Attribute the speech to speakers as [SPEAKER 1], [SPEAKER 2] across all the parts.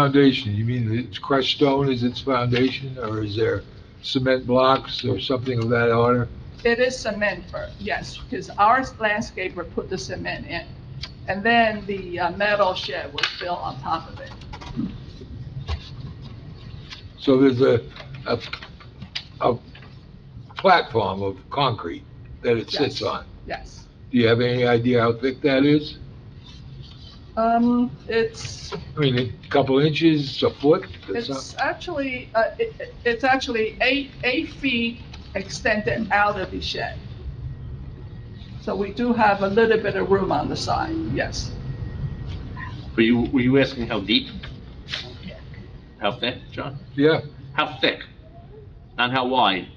[SPEAKER 1] foundation, you mean it's crushed stone is its foundation, or is there cement blocks or something of that order?
[SPEAKER 2] It is cement first, yes, because our landscaper put the cement in. And then the uh, metal shed was built on top of it.
[SPEAKER 1] So there's a, a, a platform of concrete that it sits
[SPEAKER 2] Yes.
[SPEAKER 1] on.
[SPEAKER 2] Yes.
[SPEAKER 1] Do you have any idea how thick that is?
[SPEAKER 2] Um, it's,
[SPEAKER 1] I mean, a couple inches, a foot? or
[SPEAKER 2] it's
[SPEAKER 1] something?
[SPEAKER 2] actually, uh, it, it- it's actually eight, eight feet extended out of the shed. So we do have a little bit of room on the side, yes.
[SPEAKER 3] Were you, were you asking how deep? How thick, John?
[SPEAKER 1] Yeah,
[SPEAKER 3] How thick? Not how wide?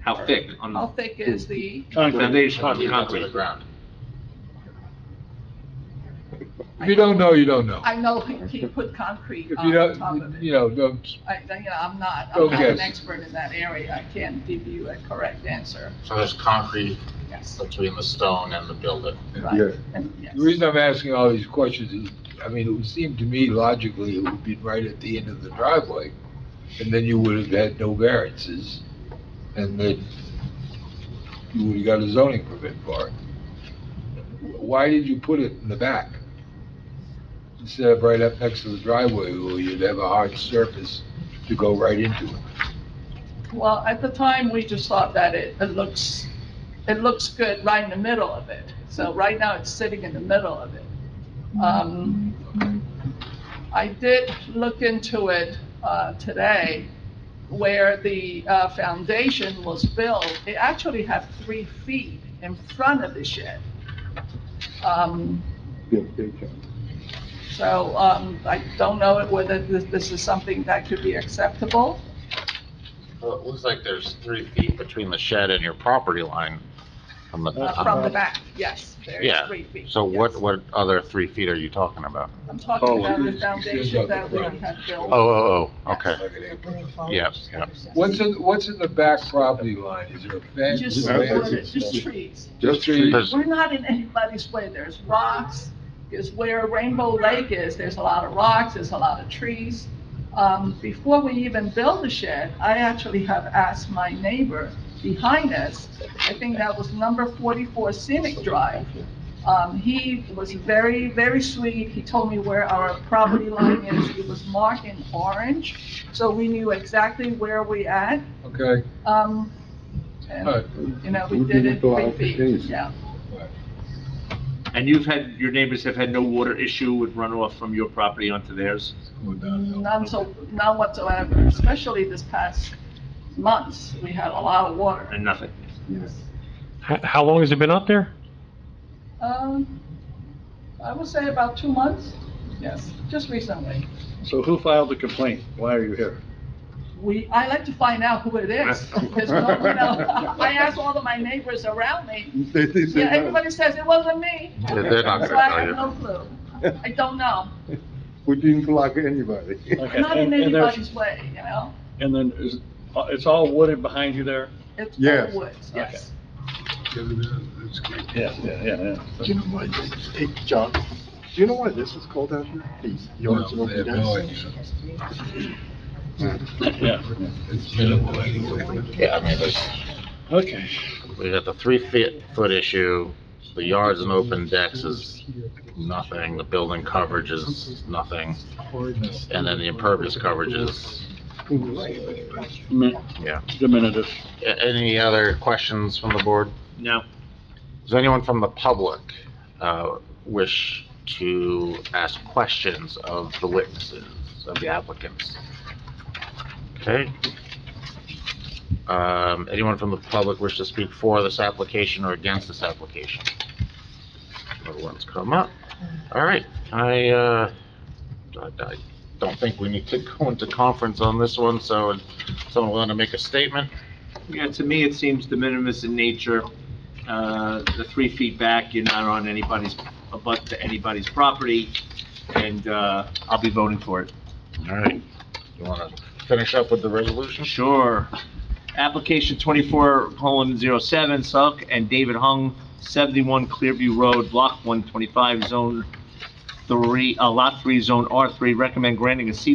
[SPEAKER 3] How thick on
[SPEAKER 2] How
[SPEAKER 3] the
[SPEAKER 2] thick is the,
[SPEAKER 3] foundation of the concrete?
[SPEAKER 1] if you don't know, you don't know.
[SPEAKER 2] I know he he put concrete
[SPEAKER 1] If
[SPEAKER 2] on
[SPEAKER 1] you
[SPEAKER 2] top of
[SPEAKER 1] don't,
[SPEAKER 2] it.
[SPEAKER 1] you know, don't,
[SPEAKER 2] I, I- you know, I'm not, I'm not
[SPEAKER 1] Okay.
[SPEAKER 2] an expert in that area, I can't give you a correct answer,
[SPEAKER 4] So there's concrete
[SPEAKER 2] yes.
[SPEAKER 4] between the stone and the building.
[SPEAKER 2] right,
[SPEAKER 1] Yeah.
[SPEAKER 2] and yes.
[SPEAKER 1] the reason I'm asking all these questions is, I mean, it would seem to me logically it would be right at the end of the driveway, and then you would have had no variances, and then you would have got a zoning permit for it. Why did you put it in the back? Instead of right up next to the driveway, where you'd have a hard surface to go right into it?
[SPEAKER 2] Well, at the time, we just thought that it, it looks, it looks good right in the middle of it. So right now, it's sitting in the middle of it. Um, I did look into it uh, today, where the uh, foundation was built. It actually had three feet in front of the shed. Um, So um, I don't know whether this this is something that could be acceptable.
[SPEAKER 4] Well, it looks like there's three feet between the shed and your property line. on the-
[SPEAKER 2] Uh, From the back, yes, there's
[SPEAKER 4] Yeah,
[SPEAKER 2] three feet.
[SPEAKER 4] So what,
[SPEAKER 2] yes.
[SPEAKER 4] what other three feet are you talking about?
[SPEAKER 2] I'm talking about
[SPEAKER 1] Oh,
[SPEAKER 2] the foundation that we have
[SPEAKER 4] Oh,
[SPEAKER 2] built.
[SPEAKER 4] oh, oh, okay. Yeah, yeah.
[SPEAKER 1] What's in, what's in the back property line? Is there a fence?
[SPEAKER 2] Just,
[SPEAKER 1] a fence?
[SPEAKER 2] wood, just trees.
[SPEAKER 1] Just trees?
[SPEAKER 4] There's-
[SPEAKER 2] We're not in anybody's way, there's rocks, is where Rainbow Lake is, there's a lot of rocks, there's a lot of trees. Um, Before we even build the shed, I actually have asked my neighbor behind us, I think that was number 44 Scenic Drive. Um, He was very, very sweet, he told me where our property line is, it was marked in orange, so we knew exactly where we at.
[SPEAKER 1] Okay,
[SPEAKER 2] Um,
[SPEAKER 1] all
[SPEAKER 2] and,
[SPEAKER 1] right.
[SPEAKER 2] You know, we
[SPEAKER 5] We
[SPEAKER 2] did
[SPEAKER 5] didn't
[SPEAKER 2] it
[SPEAKER 5] go
[SPEAKER 2] three
[SPEAKER 5] out to
[SPEAKER 2] feet,
[SPEAKER 5] trees.
[SPEAKER 2] yeah.
[SPEAKER 3] And you've had, your neighbors have had no water issue with runoff from your property onto theirs?
[SPEAKER 2] None Mm, so, none whatsoever, especially this past months, we had a lot of water.
[SPEAKER 3] And nothing?
[SPEAKER 6] H- How long has it been up there?
[SPEAKER 2] Um, I would say about two months, yes, just recently.
[SPEAKER 5] So who filed the complaint? Why are you here?
[SPEAKER 2] We, I like to find out who it is. 'cause no- you know, I asked all of my neighbors around me, yeah, everybody says it wasn't me.
[SPEAKER 4] Yeah, they're not gonna
[SPEAKER 2] So I
[SPEAKER 4] tell
[SPEAKER 2] have
[SPEAKER 4] you.
[SPEAKER 2] no clue, I don't know,
[SPEAKER 5] We didn't block anybody.
[SPEAKER 2] I'm not in
[SPEAKER 7] and there's-
[SPEAKER 2] anybody's way, you know?
[SPEAKER 7] And then is, uh, it's all wooded behind you there?
[SPEAKER 2] It's all
[SPEAKER 5] Yes.
[SPEAKER 2] woods, yes.
[SPEAKER 7] Yeah, yeah, yeah,
[SPEAKER 5] Do you know why, this- hey, John, do you know why this is called out here? These yards and
[SPEAKER 1] No, they have no
[SPEAKER 5] open decks?
[SPEAKER 1] idea.
[SPEAKER 7] yeah.
[SPEAKER 1] It's minimal anyway.
[SPEAKER 4] Yeah, I mean, there's,
[SPEAKER 7] Okay.
[SPEAKER 4] we got the three feet, foot issue, the yards and open decks is nothing, the building coverage is nothing, and then the impervious coverage is,
[SPEAKER 7] Mi-
[SPEAKER 4] yeah.
[SPEAKER 7] Diminutive.
[SPEAKER 4] A- Any other questions from the board?
[SPEAKER 3] No?
[SPEAKER 4] Does anyone from the public uh, wish to ask questions of the witnesses, of the applicants? Okay. Um, Anyone from the public wish to speak for this application or against this application? No one's come up. All right, I, uh, I- I don't think we need to go into conference on this one, so someone want to make a statement?
[SPEAKER 3] Yeah, to me, it seems de minimis in nature. Uh, The three feet back, you're not on anybody's, abut to anybody's property, and uh, I'll be voting for it.
[SPEAKER 4] All right, you want to finish up with the resolution?
[SPEAKER 3] Sure. Application twenty-four colon zero seven, Suck and David Hung, seventy-one Clearview Road, block one twenty-five, zone three, uh, lot three, zone R three, recommend granting a C